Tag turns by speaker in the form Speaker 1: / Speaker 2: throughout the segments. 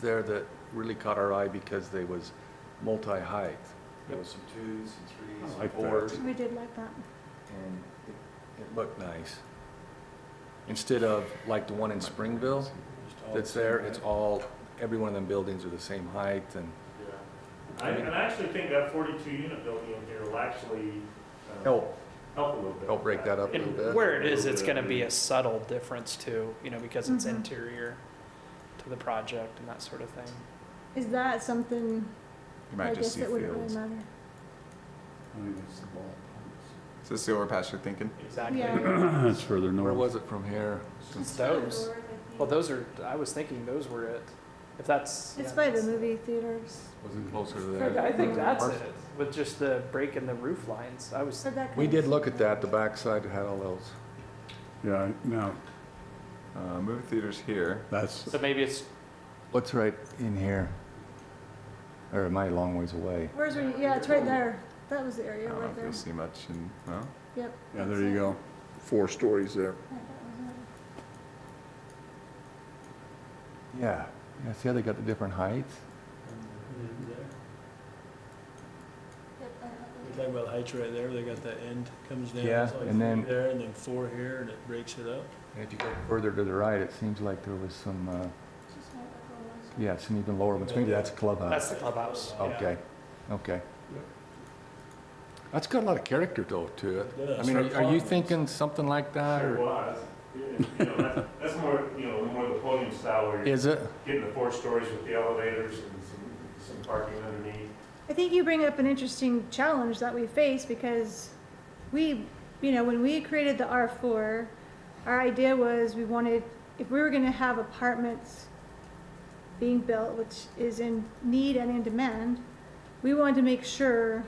Speaker 1: there that really caught our eye because they was multi-height. There was some twos,
Speaker 2: I
Speaker 1: some threes,
Speaker 2: like
Speaker 1: some
Speaker 2: that.
Speaker 1: fours,
Speaker 3: We did like that.
Speaker 1: and it, it looked nice. Instead of like the one in Springville that's there, it's all, every one of them buildings are the same height and
Speaker 4: I, and I actually think that forty-two unit building in here will actually. uh,
Speaker 1: help,
Speaker 4: Help a little bit.
Speaker 1: help break that up a little
Speaker 5: And
Speaker 1: bit.
Speaker 5: where it is, it's gonna be a subtle difference too, you know, because it's
Speaker 3: Mhm.
Speaker 5: interior to the project and that sort of thing.
Speaker 3: Is that something,
Speaker 6: You
Speaker 3: I
Speaker 6: might
Speaker 3: guess
Speaker 6: just see
Speaker 3: it wouldn't really
Speaker 6: fields.
Speaker 3: matter.
Speaker 6: Is this the overpass you're thinking?
Speaker 5: Exactly.
Speaker 3: Yeah.
Speaker 2: It's further
Speaker 1: Where
Speaker 2: north.
Speaker 1: was it from here?
Speaker 5: It's those. Well, those are, I was thinking those were it. If that's.
Speaker 3: It's
Speaker 5: yeah,
Speaker 3: by the
Speaker 5: that's-
Speaker 3: movie theaters.
Speaker 1: Was it closer to
Speaker 5: Okay,
Speaker 1: there?
Speaker 5: I think that's it, with just the break in the roof lines. I was,
Speaker 3: So that
Speaker 1: We
Speaker 3: kind
Speaker 1: did
Speaker 3: of-
Speaker 1: look at that, the backside had all those.
Speaker 2: Yeah, now,
Speaker 6: Uh, movie theaters here.
Speaker 2: that's,
Speaker 5: so maybe it's,
Speaker 1: What's right in here? Or am I a long ways away?
Speaker 3: Where's, where you- yeah, it's right there. That was the
Speaker 6: I
Speaker 3: area
Speaker 6: don't know
Speaker 3: right
Speaker 6: if
Speaker 3: there.
Speaker 6: you'll see much in, no?
Speaker 3: Yep.
Speaker 2: yeah, there you go.
Speaker 7: four stories there.
Speaker 3: Yeah, that was it.
Speaker 1: Yeah, yeah, see how they got the different heights?
Speaker 3: Yep, I know.
Speaker 8: You're talking about heights right there, they got that end comes down.
Speaker 1: Yeah,
Speaker 8: it's like
Speaker 1: and then-
Speaker 8: three There, and then four here, and it breaks it up.
Speaker 1: And if you go further to the right, it seems like there was some, uh,
Speaker 3: It's just not like all those.
Speaker 1: yeah, some even lower ones. Maybe that's a
Speaker 5: that's
Speaker 1: clubhouse.
Speaker 5: the clubhouse. yeah.
Speaker 1: Okay, okay. That's got a lot of character though to it. I mean, are- are you thinking something like that
Speaker 4: Sure
Speaker 1: or
Speaker 4: was. Yeah, you know, that's- That's more, you know, more the podium style where you're
Speaker 1: is it?
Speaker 4: getting the four stories with the elevators and some, some parking underneath.
Speaker 3: I think you bring up an interesting challenge that we face because we, you know, when we created the R4, our idea was we wanted, if we were going to have apartments being built, which is in need and in demand, we wanted to make sure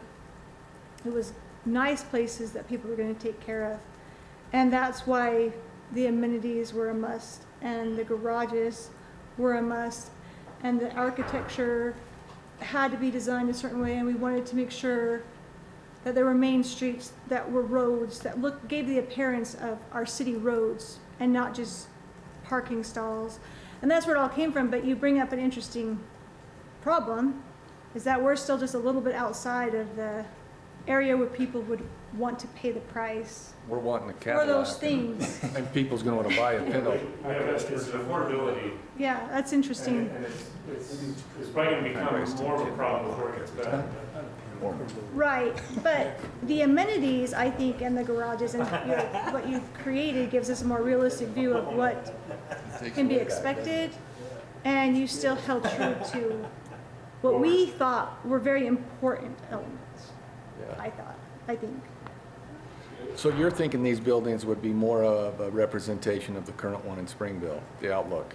Speaker 3: it was nice places that people were going to take care of. And that's why the amenities were a must and the garages were a must and the architecture had to be designed a certain way, and we wanted to make sure that there were main streets, that were roads, that look, gave the appearance of our city roads and not just parking stalls. And that's where it all came from, but you bring up an interesting problem, is that we're still just a little bit outside of the area where people would want to pay the price
Speaker 1: We're wanting a
Speaker 3: for those
Speaker 1: Cadillac.
Speaker 3: things.
Speaker 1: And people's gonna wanna buy a Pinto.
Speaker 4: Yeah, that's, it's an affordability.
Speaker 3: Yeah, that's
Speaker 4: And
Speaker 3: interesting.
Speaker 4: and it's, it's, it's probably gonna become more of a problem before it gets better.
Speaker 3: Right, but the amenities, I think, and the garages and your, what you've created gives us a more realistic view of what can be expected. And you still held true to what we thought were very important elements,
Speaker 1: Yeah.
Speaker 3: I thought, I think.
Speaker 1: So you're thinking these buildings would be more of a representation of the current one in Springville, the outlook?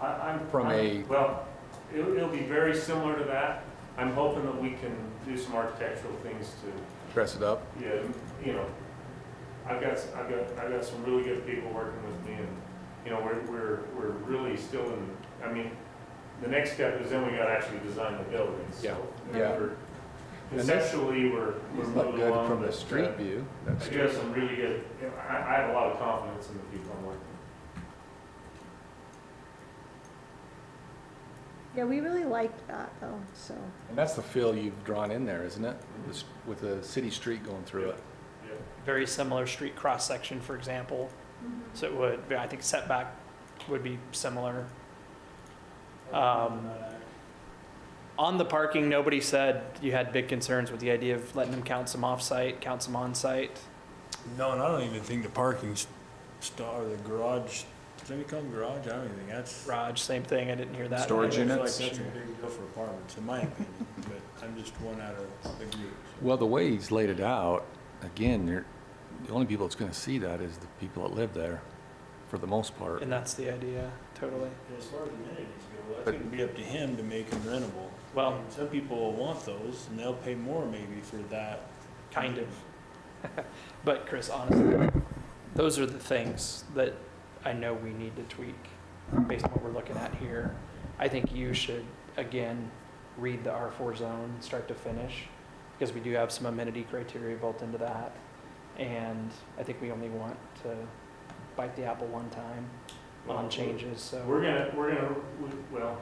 Speaker 4: I, I'm.
Speaker 1: From a-
Speaker 4: I'm- Well, it'll, it'll be very similar to that. I'm hoping that we can do some architectural things to
Speaker 1: Dress it up?
Speaker 4: Yeah, you know, I've got, I've got, I've got some really good people working with me and, you know, we're, we're, we're really still in, I mean, the next step is then we gotta actually design the buildings, so.
Speaker 1: Yeah, yeah.
Speaker 4: we're- Conceptually, we're, we're
Speaker 1: It's not
Speaker 4: moving
Speaker 1: good
Speaker 4: along.
Speaker 1: from
Speaker 4: but,
Speaker 1: the
Speaker 4: uh,
Speaker 1: street view.
Speaker 4: I do have some really good, I, I have a lot of confidence in the people I'm working with.
Speaker 3: Yeah, we really liked that though, so.
Speaker 1: And that's the feel you've drawn in there, isn't it? This- With the city street going through it.
Speaker 5: Very similar street cross-section, for example. So it would, I think setback would be similar. Um, On the parking, nobody said you had big concerns with the idea of letting them count some off-site, count some on-site.
Speaker 8: No, and I don't even think the parking star, the garage, do they call them garage? I don't even think that's.
Speaker 5: Raj, same thing, I didn't hear that.
Speaker 6: Storage
Speaker 8: I feel like
Speaker 6: units?
Speaker 8: That's a big deal for apartments, in my opinion, but I'm just one out of the group.
Speaker 1: Well, the way he's laid it out, again, you're, the only people that's gonna see that is the people that live there, for the most part.
Speaker 5: And that's the idea, totally.
Speaker 8: As far as amenities go, that's
Speaker 1: But-
Speaker 8: gonna be up to him to make them rentable.
Speaker 5: Well-
Speaker 8: And Some people will want those, and they'll pay more maybe for that.
Speaker 5: Kind of. But Chris, honestly, those are the things that I know we need to tweak based on what we're looking at here. I think you should, again, read the R4 zone, start to finish, because we do have some amenity criteria built into that. And I think we only want to bite the apple one time on changes, so.
Speaker 4: We're gonna, we're gonna, we- well,